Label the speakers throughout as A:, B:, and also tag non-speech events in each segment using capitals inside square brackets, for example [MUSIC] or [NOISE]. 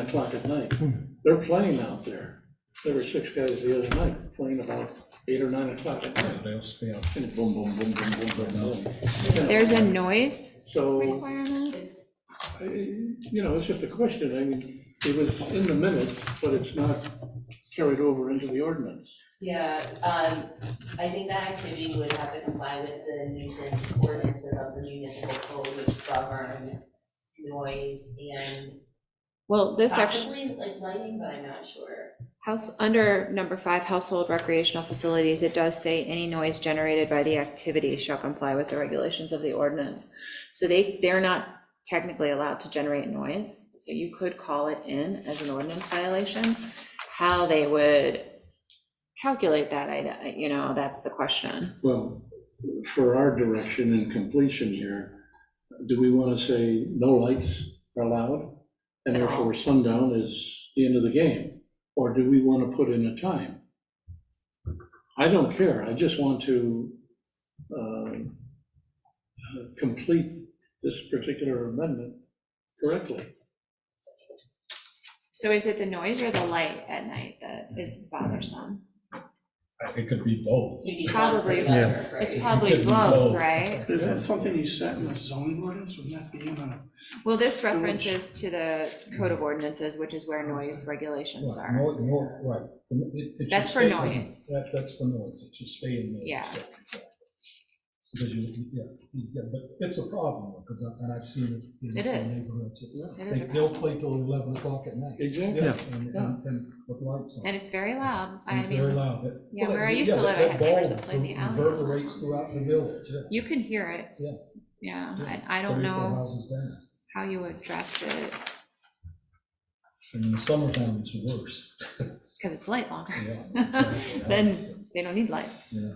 A: o'clock at night. They're playing out there. There were six guys the other night playing about eight or nine o'clock at night.
B: They'll stay out.
A: And boom, boom, boom, boom, boom, boom, boom. You know,
C: There's a noise
A: So,
C: requirement?
A: I- you know, it's just a question. I mean, it was in the minutes, but it's not carried over into the ordinance.
D: Yeah, um, I think that activity would have to comply with the nuisance ordinances of the municipal code which govern noise and
C: Well, this actually,
D: possibly like lighting, but I'm not sure.
C: house, under number five, household recreational facilities, it does say any noise generated by the activity shall comply with the regulations of the ordinance. So they, they're not technically allowed to generate noise, so you could call it in as an ordinance violation. How they would calculate that, I, you know, that's the question.
A: Well, for our direction and completion here, do we want to say no lights are allowed? And therefore sundown is the end of the game? Or do we want to put in a time? I don't care, I just want to um, uh, complete this particular amendment correctly.
C: So is it the noise or the light at night that is bothersome?
B: It could be both.
D: You do one for
C: Probably.
D: the other, right?
C: It's probably
B: It could be
C: both, right?
E: Is that something you set in the zoning ordinance, would that be in a,
C: Well, this references to the code of ordinances, which is where noise regulations
B: Right,
C: are.
B: no- no- right. It- it- it should
C: That's for
B: stay in-
C: noise.
B: That, that's for noise, it should stay in noise.
C: Yeah.
B: exactly. Because you, yeah, you- yeah, but it's a problem, because I, and I've seen it. in-
C: It
B: in
C: is.
B: neighborhoods.
C: It is a
B: They- They'll play till eleven o'clock at night.
A: Exactly.
B: Yeah, and, and, and with lights on.
C: And it's very loud. I
B: And Very
C: mean,
B: loud. but-
C: yeah,
B: well,
C: where I used
B: yeah,
C: to
B: but
C: live, I had neighbors
B: ball
C: that played the alley.
B: Reverberates throughout the village, yeah.
C: You can hear it.
B: Yeah.
C: Yeah,
B: Yeah.
C: and I don't
B: Three or four
C: know
B: Houses down.
C: how you address it,
B: And in the summertime, it's worse.
C: because it's light longer.
B: Yeah. [LAUGHS]
C: Then they don't need lights.
B: Yeah.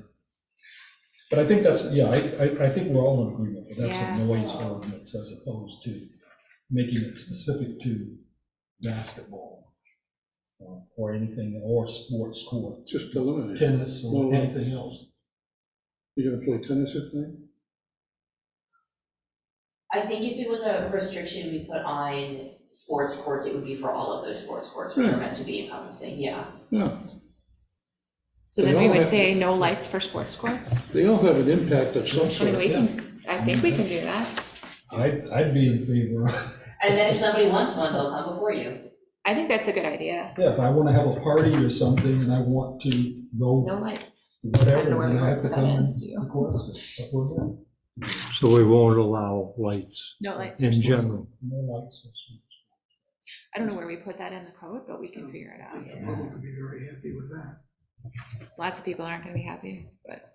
B: But I think that's, yeah, I, I, I think we're all in agreement that that's a
C: Yeah.
B: noise ordinance as opposed to making it specific to basketball uh, or anything, or sports court,
A: Just eliminate it.
B: tennis
A: No
B: or
A: lights.
B: anything else.
A: You're going to play tennis at night?
D: I think if it was a restriction we put on sports courts, it would be for all of those sports courts,
C: Hmm.
D: which are meant to be encompassing, yeah.
A: No,
C: So
A: They
C: then we
A: all
C: would
A: have-
C: say no lights for sports courts.
A: they all have an impact of some
C: I mean, we
A: sort.
C: can, I think we can do that.
B: I'd, I'd be in favor, of-
D: And then if somebody wants one, they'll come before you.
C: I think that's a good idea.
B: yeah, if I want to have a party or something and I want to
C: No
B: go
C: lights. I don't know
B: whatever,
C: where
B: then I
C: we're
B: have to
C: putting that in,
B: come
C: do you?
B: and request it. What's that?
F: So we won't allow lights
C: No lights.
F: in general.
B: No lights or something.
C: I don't know where we put that in the code, but we can figure it
E: I
C: out.
E: think the public would be very happy with that.
C: Lots of people aren't gonna be happy, but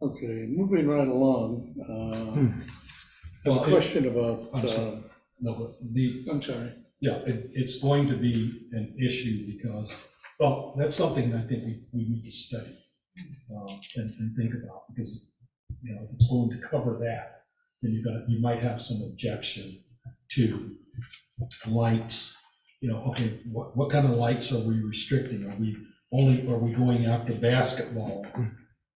A: Okay, moving right along, uh, I
B: Well,
A: have a
B: it-
A: question about,
B: Hmm. I'm sorry.
A: uh,
B: No, but the,
A: I'm sorry.
B: Yeah, it, it's going to be an issue because, well, that's something that I think we, we need to study, um, and, and think about, because, you know, if it's going to cover that, then you've got, you might have some objection to lights, you know, okay, what, what kind of lights are we restricting? Are we only, are we going after basketball?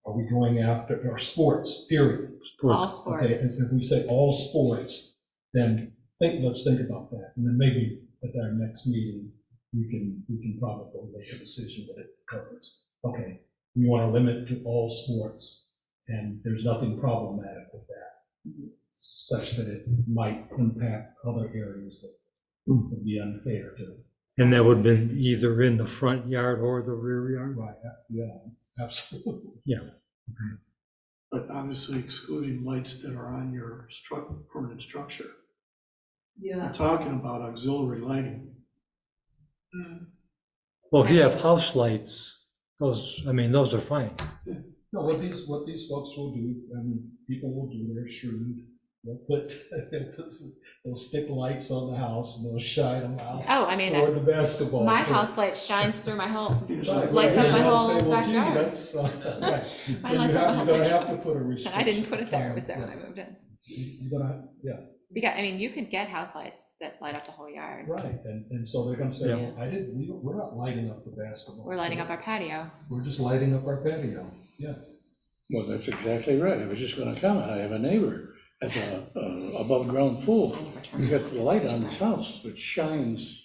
B: Are we going after, or sports, period?
C: all
B: Okay,
C: sports.
B: if, if we say all sports, then think, let's think about that, and then maybe at our next meeting, we can, we can probably make a decision that it covers. Okay, we want to limit to all sports, and there's nothing problematic with that, such that it might impact other areas that would be unfair to.
F: And that would have been either in the front yard or the rear yard.
B: Right, yeah, absolutely.
E: But obviously excluding lights that are on your stru, permanent structure.
D: Yeah.
E: We're talking about auxiliary lighting.
D: Mm.
F: Well, if you have house lights, those, I mean, those are fine.
B: No, what these, what these folks will do, and people will do, they're shrewd, they'll put, [LAUGHS] they'll put, some- they'll stick lights on the house and they'll shine them out
C: Oh, I mean,
B: toward the basketball.
C: my
B: court.
C: house light shines through
B: [LAUGHS]
C: my whole,
B: Right,
C: lights up
B: right, and
C: my
B: I'll
C: whole
B: say, well, gee,
C: backyard.
B: that's, uh, [LAUGHS] right.
C: [LAUGHS] My
B: So you
C: lights up my
B: have,
C: whole
B: you're gonna have to
C: backyard.
B: put a
C: and
B: restriction.
C: [LAUGHS] I didn't put it there, it was there when I
B: Yeah.
C: moved in.
B: You- You're gonna, yeah,
C: Because, I mean, you could get house lights that light up the whole yard.
B: right, and, and so they're gonna say,
C: Yeah.
B: well, I didn't, we, don't- we're not lighting up the basketball.
C: We're lighting up
B: court.
C: our patio.
B: We're just lighting up our patio, yeah.
A: Well, that's exactly right. I was just gonna comment. I have a neighbor, has a, a above-ground pool.
C: I never turn
A: He's got the
C: on.
A: light on his house, which shines